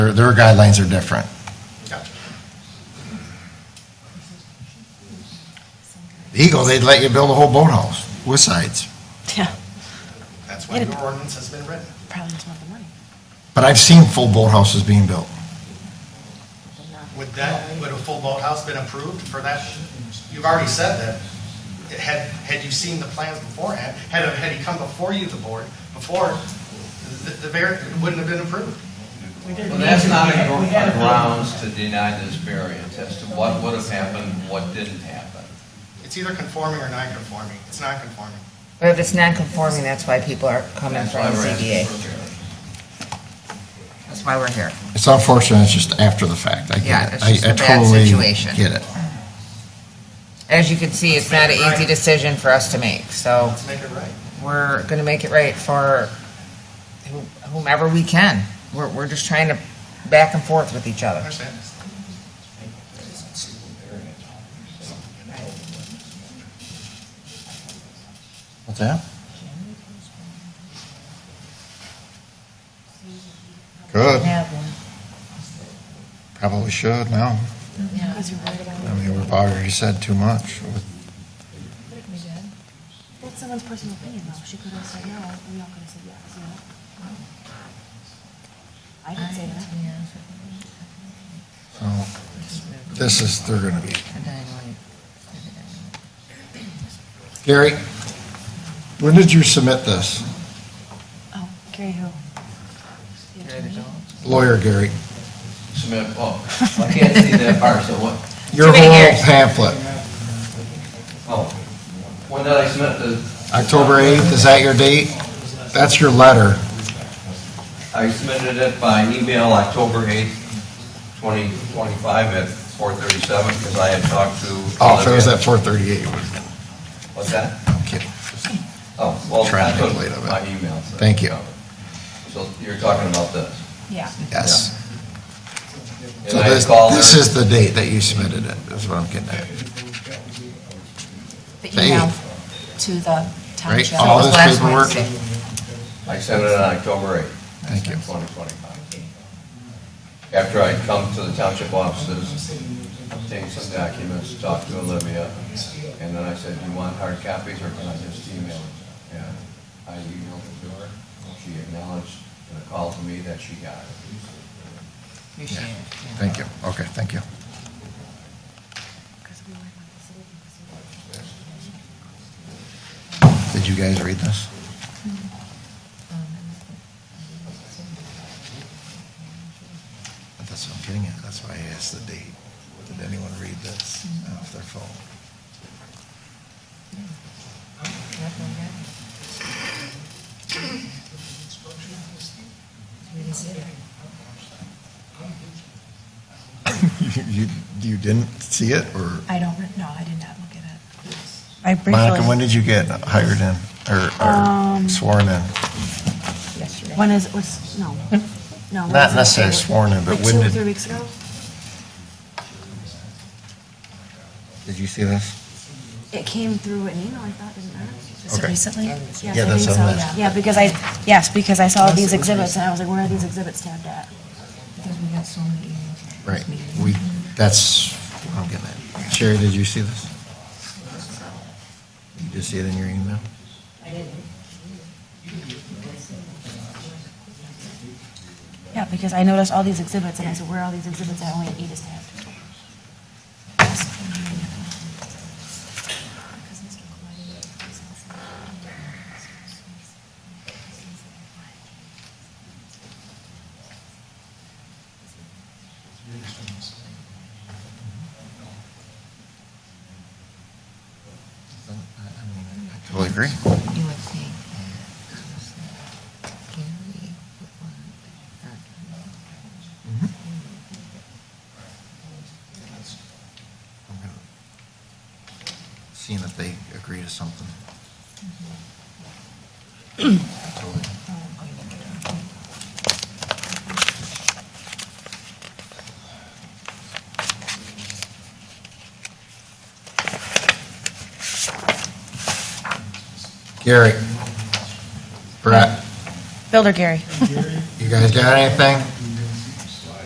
Their, their guidelines are different. Eagle, they'd let you build a whole boathouse with sides. Yeah, That's why your ordinance has been written. probably doesn't have the money. But I've seen full boathouses being built. Would that, would a full boathouse been approved for that? You've already said that. It Had, had you seen the plans beforehand, had, had he come before you, the board, before, the, the, var- it wouldn't have been approved. Well, that's not a gr- a grounds to deny this variance as to what would have happened, what didn't happen. It's either conforming or non-conforming. It's not conforming. But if it's non-conforming, that's why people are coming That's from why the we're asking ZBA. for a variance. That's why we're here. It's unfortunate, it's just after the fact. I Yeah, get it. it's I- just I a bad totally situation. Get it. As you can see, it's not an easy decision for us to make, so Let's make it right. we're gonna make it right for who- whomever we can. We're, we're just trying to back and forth with each other. Understand? What's that? Good, Have one. probably should now. Because you're worried about I mean, we've already said too much. That's someone's personal opinion, though. She could have said no, and we all could have said yes, you know? I didn't say that. So, This is, they're gonna be. Gary, when did you submit this? Oh, Gary who? The attorney? Lawyer Gary, Submit, oh, I can't see that part, so what, your Too many whole years. pamphlet, oh, when did I submit the? October 8th, is that your date? That's your letter. I submitted it by email October 8th, 2025 at 4:37, because I had talked to. Oh, if it was Olivia. at 4:38, it would have been, What's that? I'm kidding. Oh, well, Trying I to put get rid of it. my email. so- Thank you. So you're talking about this? Yeah. Yes. And So I this, called her- this is the date that you submitted it, is what I'm getting at. The Hey. email to the Right, township. all this Oh, Last paperwork? Wednesday. I sent it on October 8th. Thank you. 2025. After I'd come to the township offices, obtained some documents, talked to Olivia, and then I said, do you want hard copies or can I just email it? And I emailed it to her, she acknowledged in a call to me that she got it. Appreciate it. Thank you, okay, thank you. Did you guys read this? That's what I'm getting at, that's why I asked the date. Did anyone read this off their phone? You, you didn't see it, or? I don't, re- no, I did not look at it. I Monica, when briefly, did you get hired in, or- or Um, sworn in? when is, was, no. No. when Not is it? necessarily sworn in, but Like when two, did- three weeks ago? Did you see this? It came through an email, I thought, didn't it? Okay. recently? Yes, Yeah, I that's think on so, this. yeah. Yeah, because I, yes, because I saw these exhibits, and I was like, where are these exhibits tabbed at? Because we got so many emails. Right, we, that's, what I'm getting at. Sherry, did you see this? You just see it in your email? Yeah, because I noticed all these exhibits, and I said, where are all these exhibits at? Only eight is tabbed. Totally agree. You would think that Gary would want to I'm gonna- Seeing if they agree to something. Totally. Gary, Brett, Builder Gary. you guys got anything?